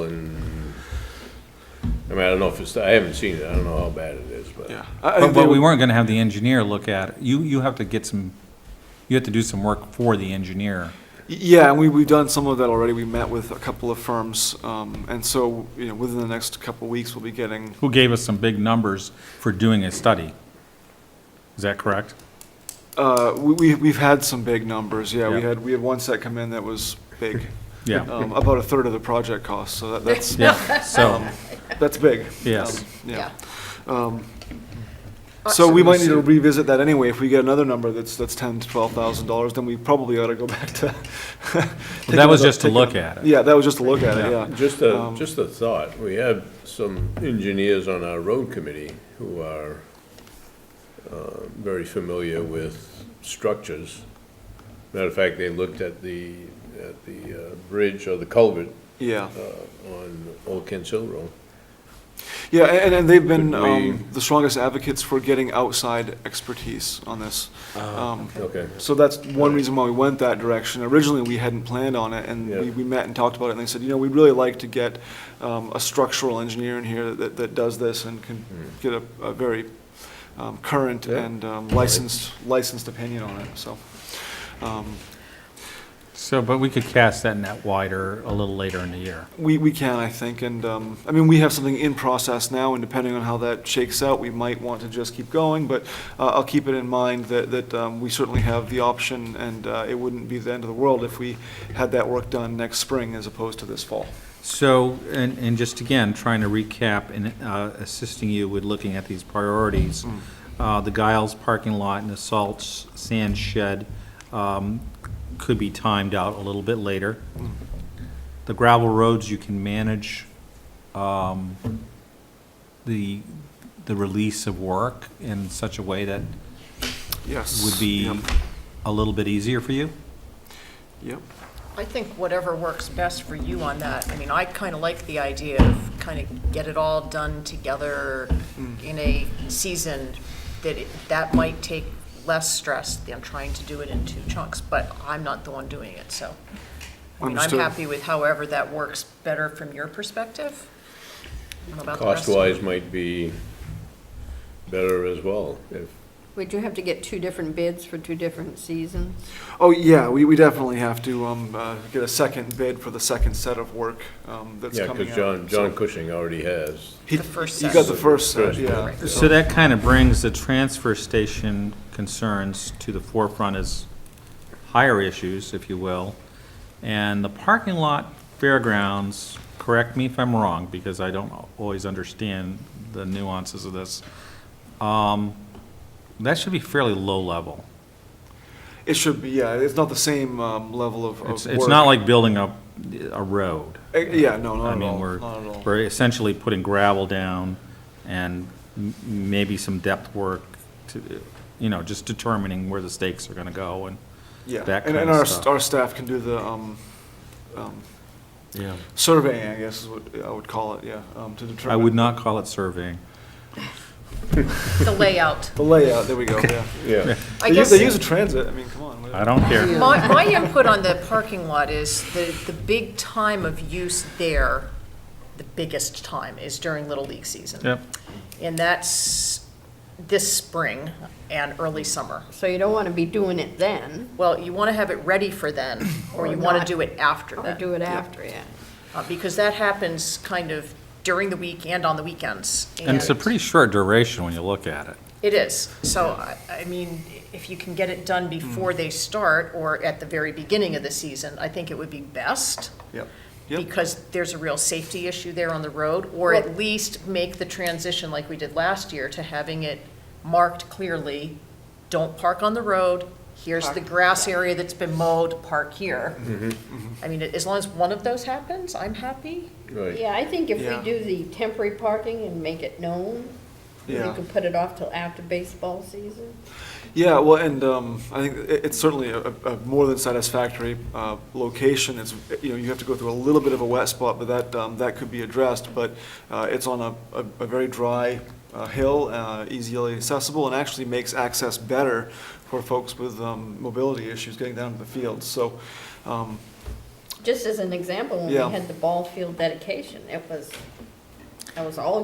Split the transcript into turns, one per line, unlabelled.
I mean, I don't know if it's, I haven't seen it, I don't know how bad it is, but.
yeah. I- I-
But,
they
but we
would-
weren't gonna have the engineer look at, it. you, you have to get some, you have to do some work for the engineer.
Yeah, and we, we've done some of that already. We met with a couple of firms, um, and so, you know, within the next couple of weeks, we'll be getting,
Who gave us some big numbers for doing a study? Is that correct?
uh, we- we, we've had some big numbers, yeah. We
Yeah.
had, we had one set come in that was big,
Yeah,
um, about a third of the project cost, so that- that's,
yeah, so,
that's big.
Yes.
Um, Yeah. Um, So we might need to revisit that anyway. If we get another number that's, that's ten to twelve thousand dollars, then we probably ought to go back to. take
that was
another-
just to
take
look
another-
at it.
Yeah, that was just to look at it,
Yeah.
yeah.
Just a,
Um,
just a thought, we have some engineers on our road committee who are uh, very familiar with structures. Matter of fact, they looked at the, at the uh, bridge or the culvert
Yeah,
uh, on Old Kent Hill Road.
yeah, a- and, and they've been,
Could we-
um, the strongest advocates for getting outside expertise on this. Um,
Ah, Okay,
So that's one reason why we went that direction. Originally, we hadn't planned on it, and we,
Yeah.
we met and talked about it, and they said, you know, we'd really like to get um, a structural engineer in here that, that does this and can get a, a very um, current
Hmm. Yeah.
and um, licensed, licensed opinion on it, so. um,
So, but we could cast that net wider a little later in the year.
We, we can, I think, and, um, I mean, we have something in process now, and depending on how that shakes out, we might want to just keep going, but uh, I'll keep it in mind that, that um, we certainly have the option, and uh, it wouldn't be the end of the world if we had that work done next spring as opposed to this fall.
So, and, and just again, trying to recap and uh, assisting you with looking at these priorities, uh, the Giles parking lot and the salt s- sand shed um, could be timed out a little bit later. The gravel roads, you can manage um, the, the release of work in such a way that
Yes.
would be
Yep.
a little bit easier for you?
Yep.
I think whatever works best for you on that. I mean, I kind of like the idea of kind of get it all done together
Mm.
in a season, that it- that might take less stress than trying to do it in two chunks, but I'm not the one doing it, so. I mean, I'm
Understood.
happy with however that works better from your perspective. I don't know about the rest of you.
cost-wise might be better as well, if,
Would you have to get two different bids for two different seasons?
Oh, yeah, we, we definitely have to um, uh, get a second bid for the second set of work um, that's
yeah,
coming out.
because John, John
so-
Cushing already has.
He-
The first
He
set.
got the first set,
First.
yeah.
So that kind of brings the transfer station concerns to the forefront as higher issues, if you will. And the parking lot fairgrounds, correct me if I'm wrong, because I don't always understand the nuances of this. Um, That should be fairly low level.
It should be, yeah, it's not the same um, level of of work.
It's, it's not like building a, a road.
Uh, Yeah, no, not
I
at
mean,
all,
we're,
not at all.
we're essentially putting gravel down and m- maybe some depth work to, you know, just determining where the stakes are gonna go and
Yeah,
that
and,
kind
and
of
our,
stuff.
our staff can do the, um, um,
Yeah.
surveying, I guess is what I would call it, yeah, um, to determine.
I would not call it surveying.
The layout.
The layout, there we go, yeah.
Yeah.
They
I
use,
guess
they use a transit, I mean, come on. what-
I don't care.
My, my input on the parking lot is the, the big time of use there, the biggest time is during Little League season.
Yep.
And that's this spring and early summer.
So you don't want to be doing it then,
Well, you want to have it ready for then, or
Or
you want to
not.
do it after
or
then.
do it after, yeah.
Uh, Because that happens kind of during the week and on the weekends.
And it's a pretty short duration when you look at it.
It is. So, I, I mean, if you can get it done
Mm.
before they start or at the very beginning of the season, I think it would be best.
Yep, yep,
because there's a real safety issue there on the road, or
Well-
at least make the transition like we did last year to having it marked clearly, don't park on the road, here's the
Park.
grass area that's been mowed, park here. I mean, as long as one of those happens, I'm happy.
Right,
Yeah, I think if
Yeah.
we do the temporary parking and make it known, we
yeah.
could put it off till after baseball season.
Yeah, well, and um, I think it- it's certainly a, a more than satisfactory uh, location. It's, you know, you have to go through a little bit of a wet spot, but that, um, that could be addressed. But uh, it's on a, a- a very dry uh, hill, uh, easily accessible, and actually makes access better for folks with um, mobility issues getting down to the field. So, um,
Just as an example, when we
Yeah.
had the ball field dedication, it was, it was all